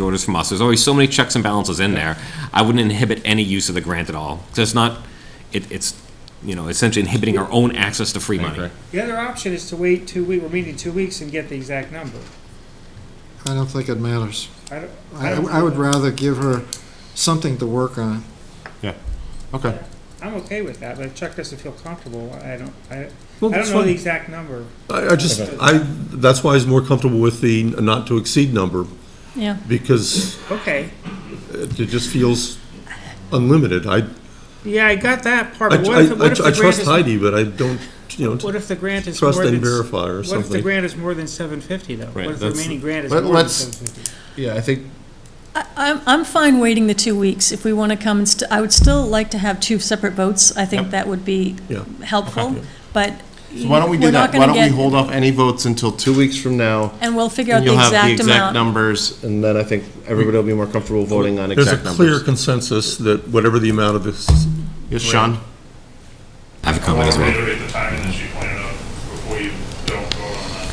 orders from us. There's always so many checks and balances in there. I wouldn't inhibit any use of the grant at all. 'Cause it's not, it, it's, you know, essentially inhibiting our own access to free money. The other option is to wait two weeks, we're meeting two weeks and get the exact number. I don't think it matters. I don't, I, I would rather give her something to work on. Okay. I'm okay with that, but Chuck doesn't feel comfortable, I don't, I, Well, I that's don't know the fine. exact number. I, I just, I, that's why I was more comfortable with the not to exceed number, Yeah, because Okay, it it just feels unlimited. I, yeah, I got that part, I, but what if, what if I- I the grant trust is, Heidi, but I don't, you know, what if the grant is more trust than? and verify or What if the something. grant is more than seven fifty though? Right, What if the that's- remaining grant is Let- more than let's- seven fifty? Yeah, I think, I, I'm, I'm fine waiting the two weeks if we want to come, and st- I would still like to have two separate votes, I think that would be Yeah. helpful, but. so why don't we we're do not that? Why gonna don't we get- hold off any votes until two weeks from now? And we'll figure out And the you'll have the exact exact amount. numbers, and then I think everybody will be more comfortable voting on There's a exact clear numbers. consensus that whatever the amount of this, Yes, Sean? I have a I comment want as to well. reiterate the timing that she pointed out before you don't vote on that.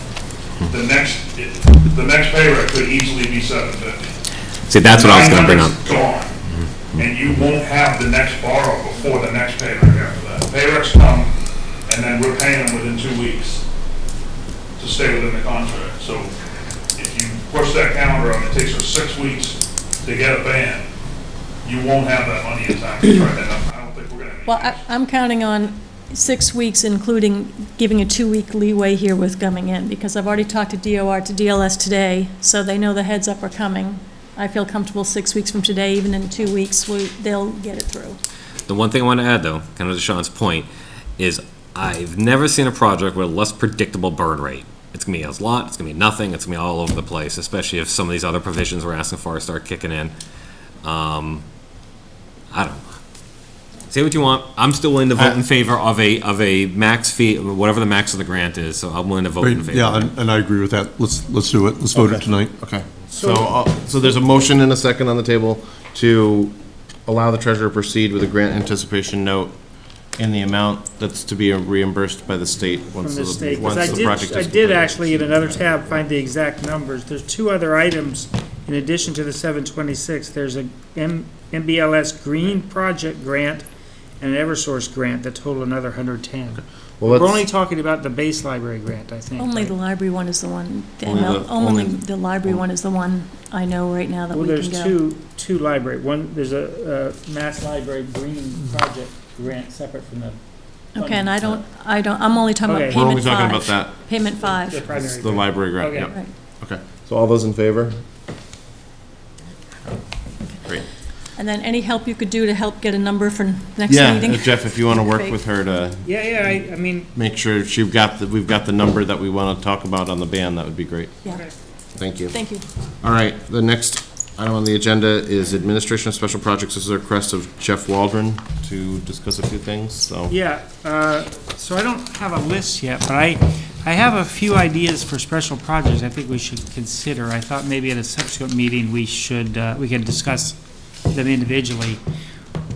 Hmm. The next, the next pay rate could easily be seven fifty. See, that's what I was gonna bring up. Hmm. Gone, and you won't have the next borrow before the next pay rate after that. Pay rates come, and then we're paying them within two weeks to stay within the contract. So if you push that calendar out, it takes us six weeks to get a ban, you won't have that money in time to try that out. I don't think we're gonna. make Well, it. I, I'm counting on six weeks, including giving a two-week leeway here with coming in, because I've already talked to DOR, to DLS today, so they know the heads up are coming. I feel comfortable six weeks from today, even in two weeks, we, they'll get it through. The one thing I want to add, though, kind of to Sean's point, is I've never seen a project with a less predictable burn rate. It's gonna be a lot, it's gonna be nothing, it's gonna be all over the place, especially if some of these other provisions we're asking for start kicking in. Um, I don't know. Say what you want, I'm still willing to vote in favor of a, of a max fee, whatever the max of the grant is, so I'm willing to vote in favor. yeah, and and I agree with that. Let's, let's do it. Let's vote it tonight. Okay. So, uh, so there's a motion and a second on the table to allow the treasurer to proceed with a grant anticipation note in the amount that's to be reimbursed by the state from once the the, state, because I once the project did, is I completed. did actually in another tab find the exact numbers. There's two other items in addition to the seven twenty-six. There's a M, MBLS Green Project Grant and an Eversource Grant that total another hundred ten. Well, We're let's- only talking about the base library grant, I think. Only right? the library one is the one, the Only ML the- only only- the library one is the one I know right now that Well, we there's can go. two, two library, one, there's a, uh Mass Library Green Project Grant separate from the. Okay, and I don't, I don't, I'm only talking about Okay. We're only payment talking about five. that, Payment The five. primary It's the grant. library grant, Okay. yep. Right. Okay, so all those in favor? And then any help you could do to help get a number for next Yeah, meeting? uh, Jeff, if you want to work Great. with her to Yeah, yeah, I, I mean, make sure she got, the we've got the number that we want to talk about on the ban, that would be great. Yeah, Thank you. thank you. All right, the next item on the agenda is Administration of Special Projects. This is a request of Jeff Waldron to discuss a few things, so. Yeah, uh, so I don't have a list yet, but I, I have a few ideas for special projects I think we should consider. I thought maybe at a subsequent meeting, we should, uh, we can discuss them individually.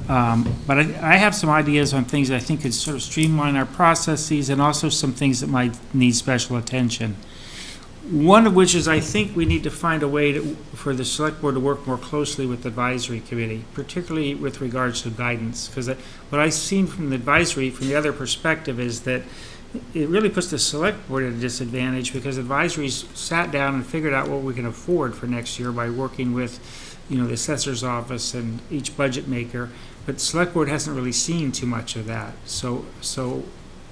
Um, But I, I have some ideas on things that I think could sort of streamline our processes and also some things that might need special attention. One of which is I think we need to find a way to, for the select board to work more closely with the advisory committee, particularly with regards to guidance. Because what I've seen from the advisory, from the other perspective, is that it really puts the select board at a disadvantage because advisories sat down and figured out what we can afford for next year by working with, you know, the assessor's office and each budget maker. But select board hasn't really seen too much of that. So, so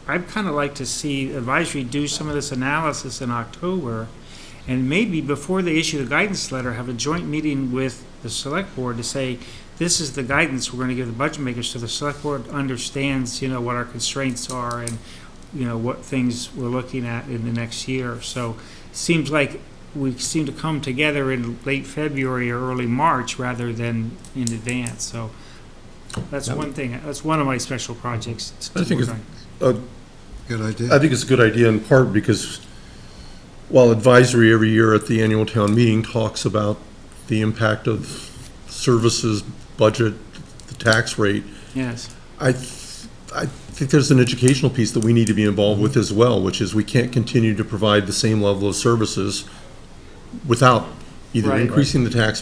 I'd kind of like to see advisory do some of this analysis in October. And maybe before they issue the guidance letter, have a joint meeting with the select board to say, this is the guidance we're gonna give the budget makers, so the select board understands, you know, what our constraints are and, you know, what things we're looking at in the next year. So, seems like we seem to come together in late February or early March rather than in advance, so that's one thing, that's one of my special projects to I think work it's- on. Good I idea. think it's a good idea in part because while advisory every year at the annual town meeting talks about the impact of services, budget, the tax rate, Yes. I, th- I think there's an educational piece that we need to be involved with as well, which is we can't continue to provide the same level of services without either Right. increasing the tax